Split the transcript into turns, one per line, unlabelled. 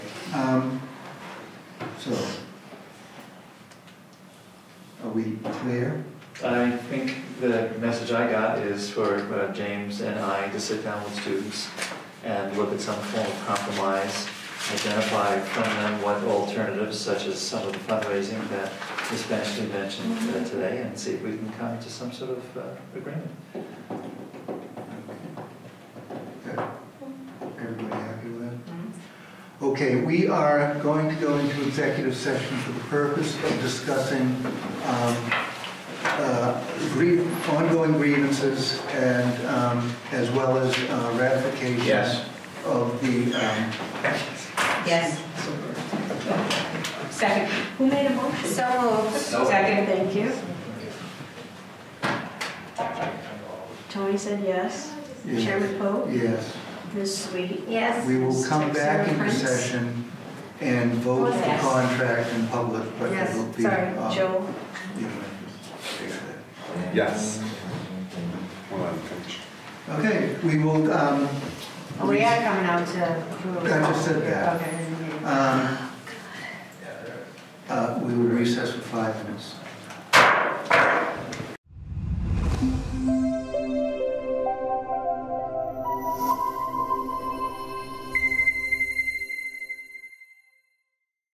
Um, So, are we clear?
I think the message I got is for uh, James and I to sit down with students and look at some form of compromise, identify from them what alternatives, such as some of the fundraising that Ms. Benchley mentioned uh, today, and see if we can come to some sort of uh, agreement.
Good. Everybody happy with that? Okay, we are going to go into executive session for the purpose of discussing um, uh, grie- ongoing grievances and, um, as well as uh, ratification
Yes.
of the, um,
Yes.
Second. Who made a motion?
So moved.
Second.
Thank you. Tony said yes.
Yes.
Chairman Poe,
yes.
Ms. Sweet.
Yes.
We will come back
in
into session and vote the
Yes.
contract in public, but it
Yes,
will be.
Sorry,
um,
Joe.
you know, take that.
Yes. Hold on, finish.
Okay, we will, um,
Oh, We are coming out to.
I just said that. Um,
Okay.
uh,